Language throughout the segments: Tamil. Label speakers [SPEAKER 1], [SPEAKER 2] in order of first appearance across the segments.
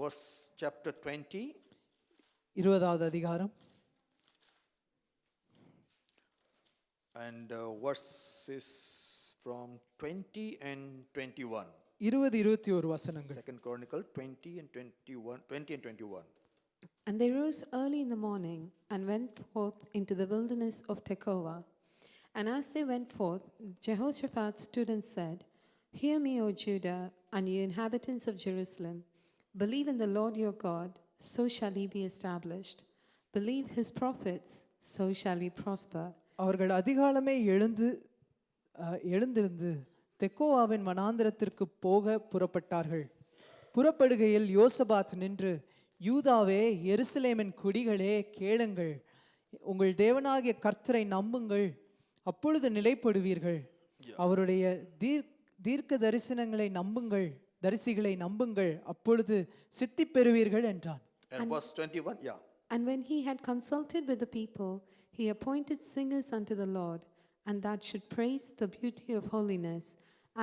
[SPEAKER 1] verse chapter 20,
[SPEAKER 2] இருபதாவது அதிகாரம்
[SPEAKER 1] and uh, verses from 20 and 21.
[SPEAKER 2] இருபது இருபத்தி ஒரு வசனங்கள்
[SPEAKER 1] Second Chronicle 20 and 21, 20 and 21.
[SPEAKER 3] And they rose early in the morning and went forth into the wilderness of Tekoa. And as they went forth, Jehoshaphat stood and said, Hear me, O Judah, and you inhabitants of Jerusalem. Believe in the Lord your God, so shall he be established. Believe his prophets, so shall he prosper.
[SPEAKER 2] அவர்கள் அதிகாலமே எழுந்து அஹ், எழுந்திருந்து தெக்கோவாவின் வனாந்திரத்திற்கு போக புறப்பட்டார்கள் புறப்படுகையில் யோசபாத் நின்று யூதாவே எருசலேமின் குடிகளே கேளுங்கள் உங்கள் தேவனாகிய கர்த்தரை நம்புங்கள் அப்பொழுது நிலைப்படுவீர்கள் அவருடைய தீர் தீர்க்க தரிசனங்களை நம்புங்கள் தரிசிகளை நம்புங்கள் அப்பொழுது சித்தி பெறுவீர்கள் என்றான்
[SPEAKER 1] And, verse 21, yeah.
[SPEAKER 3] And when he had consulted with the people, he appointed singers unto the Lord, and that should praise the beauty of holiness,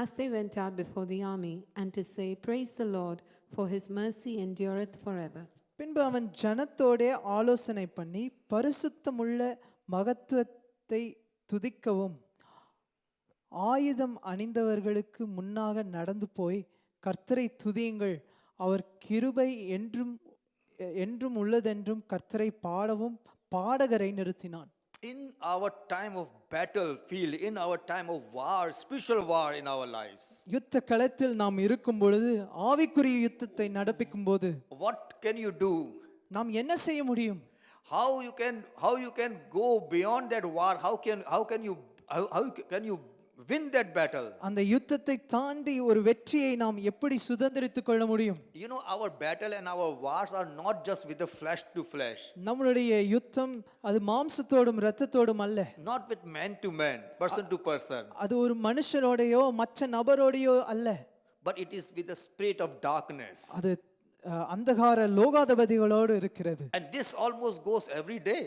[SPEAKER 3] as they went out before the army, and to say, Praise the Lord, for his mercy endureth forever.
[SPEAKER 2] பின்பு அவன் ஜனத்தோடே ஆலோசனை பண்ணி பரிசுத்தமுள்ள மகத்துவத்தை துதிக்கவும் ஆயுதம் அணிந்தவர்களுக்கு முன்னாக நடந்து போய் கர்த்தரை துதியுங்கள் அவர் கிருபை என்றும் எ- என்றும் உள்ளதென்றும் கர்த்தரை பாடவும் பாடகரை நிறுத்தினான்
[SPEAKER 1] In our time of battlefield, in our time of war, spiritual war in our lives,
[SPEAKER 2] யுத்த களத்தில் நாம் இருக்கும் பொழுது ஆவிக்குரிய யுத்தத்தை நடப்பிக்கும் போது
[SPEAKER 1] what can you do?
[SPEAKER 2] நாம் என்ன செய்ய முடியும்
[SPEAKER 1] how you can how you can go beyond that war how can how can you how, how can you win that battle
[SPEAKER 2] அந்த யுத்தத்தை தாண்டி ஒரு வெற்றியை நாம் எப்படி சுதந்திரித்துக் கொள்ள முடியும்
[SPEAKER 1] you know our battle and our wars are not just with the flesh to flesh
[SPEAKER 2] நம்மளுடைய யுத்தம் அது மாம்சத்தோடும் இரத்தத்தோடும் அல்ல
[SPEAKER 1] not with man to man person to person
[SPEAKER 2] அது ஒரு மனுஷரோடையோ மற்ற நபரோடையோ அல்ல
[SPEAKER 1] but it is with the spirit of darkness
[SPEAKER 2] அது அஹ், அந்தகார லோகாதிபதிகளோடு இருக்கிறது
[SPEAKER 1] and this almost goes every day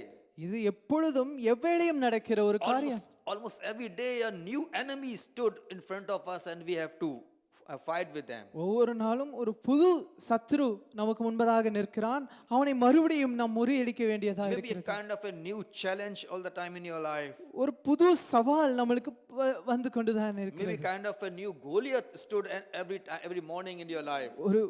[SPEAKER 2] இது எப்பொழுதும் எவ்வேளையும் நடக்கிற ஒரு காரியம்
[SPEAKER 1] almost, almost every day a new enemy stood in front of us and we have to uh, fight with them
[SPEAKER 2] ஒவ்வொரு நாளும் ஒரு புது சத்ரு நமக்கு முன்பதாக நிற்கிறான் அவனை மறுபடியும் நாம் முறியடிக்க வேண்டியதாக
[SPEAKER 1] maybe a
[SPEAKER 2] இருக்கிறது
[SPEAKER 1] kind of a new challenge all the time in your life
[SPEAKER 2] ஒரு புது சவால் நம்மளுக்கு வ- வந்து கொண்டுதான் இருக்கு
[SPEAKER 1] Maybe kind of a new Goliath stood and every ti- every morning in your life.
[SPEAKER 2] ஒரு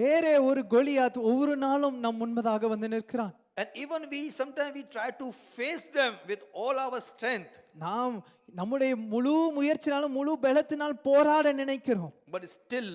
[SPEAKER 2] வேறே ஒரு கோலியாத் ஒவ்வொரு நாளும் நம் முன்பதாக வந்து நிற்கிறான்
[SPEAKER 1] And even we sometimes we try to face them with all our strength,
[SPEAKER 2] நாம் நம்முடைய முழு முயற்சினாலும் முழு பலத்தினால் போராட நினைக்கிறோம்
[SPEAKER 1] but still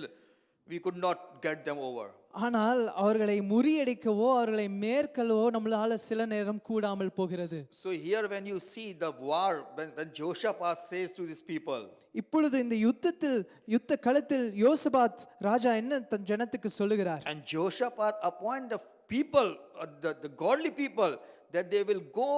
[SPEAKER 1] we could not get them over.
[SPEAKER 2] ஆனால் அவர்களை முறியடிக்கவோ அவர்களை மேற்கொள்ளவோ நம்மளால சில நேரம் கூடாமல் போகிறது
[SPEAKER 1] So here when you see the war, when, when Jehoshaphat says to these people,
[SPEAKER 2] இப்பொழுது இந்த யுத்தத்தில் யுத்த களத்தில் யோசபாத் ராஜா என்ன தன் ஜனத்துக்கு சொல்லுகிறார்
[SPEAKER 1] and Jehoshaphat appoint the people, uh, the, the godly people, that they will go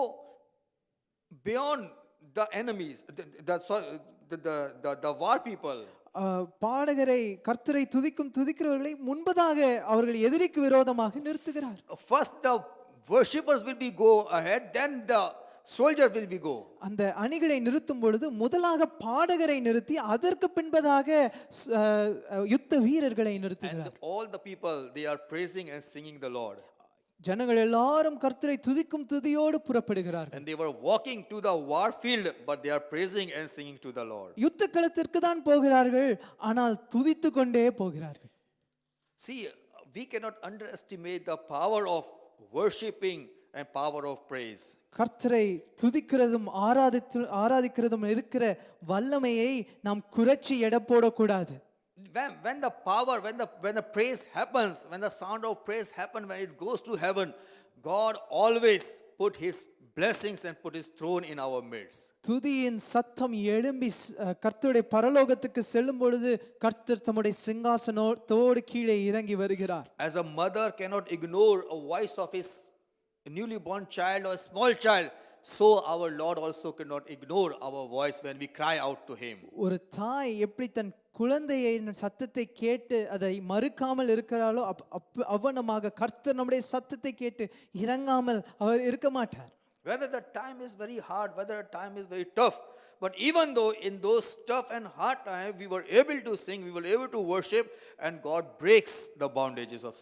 [SPEAKER 1] beyond the enemies, the, the, sorry, the, the, the, the war people.
[SPEAKER 2] ஆ, பாடகரை கர்த்தரை துதிக்கும் துதிக்கிறவர்களை முன்பதாக அவர்கள் எதிரிக்கு விரோதமாக நிறுத்துகிறார்
[SPEAKER 1] first the worshippers will be go ahead then the soldier will be go
[SPEAKER 2] அந்த அணிகளை நிறுத்தும் பொழுது முதலாக பாடகரை நிறுத்தி அதற்கு பின்பதாக ஸ்- ஆ, ஆ, யுத்த வீரர்களை நிறுத்துகிறார்
[SPEAKER 1] and all the people they are praising and singing the lord
[SPEAKER 2] ஜனங்கள் எல்லாரும் கர்த்தரை துதிக்கும் துதியோடு புறப்படுகிறார்கள்
[SPEAKER 1] and they were walking to the war field but they are praising and singing to the lord
[SPEAKER 2] யுத்த களத்திற்கு தான் போகிறார்கள் ஆனால் துதித்து கொண்டே போகிறார்கள்
[SPEAKER 1] see we cannot underestimate the power of worshiping and power of praise
[SPEAKER 2] கர்த்தரை துதிக்கிறதும் ஆராதித்து ஆராதிக்கிறதும் இருக்கிற வல்லமையை நாம் குறைச்சி எடை போடக்கூடாது
[SPEAKER 1] when, when the power when the when the praise happens when the sound of praise happen when it goes to heaven god always put his blessings and put his throne in our midst
[SPEAKER 2] துதியின் சத்தம் எழும்பி ஸ்- அஹ், கர்த்தருடைய பரலோகத்துக்கு செல்லும் பொழுது கர்த்தர் தம்முடைய சிங்காசனத்தோடு கீழே இறங்கி வருகிறார்
[SPEAKER 1] As a mother cannot ignore a voice of his newly born child or small child, so our Lord also cannot ignore our voice when we cry out to him.
[SPEAKER 2] ஒரு தாய் எப்படி தன் குழந்தையின் சத்தத்தை கேட்டு அதை மறுக்காமல் இருக்கிறாளோ அப் அப் அவ்வனமாக கர்த்தர் நம்முடைய சத்தத்தை கேட்டு இறங்காமல் அவர் இருக்க மாட்டார்
[SPEAKER 1] Whether the time is very hard, whether the time is very tough, but even though in those tough and hard times we were able to sing, we were able to worship, and God breaks the bondages of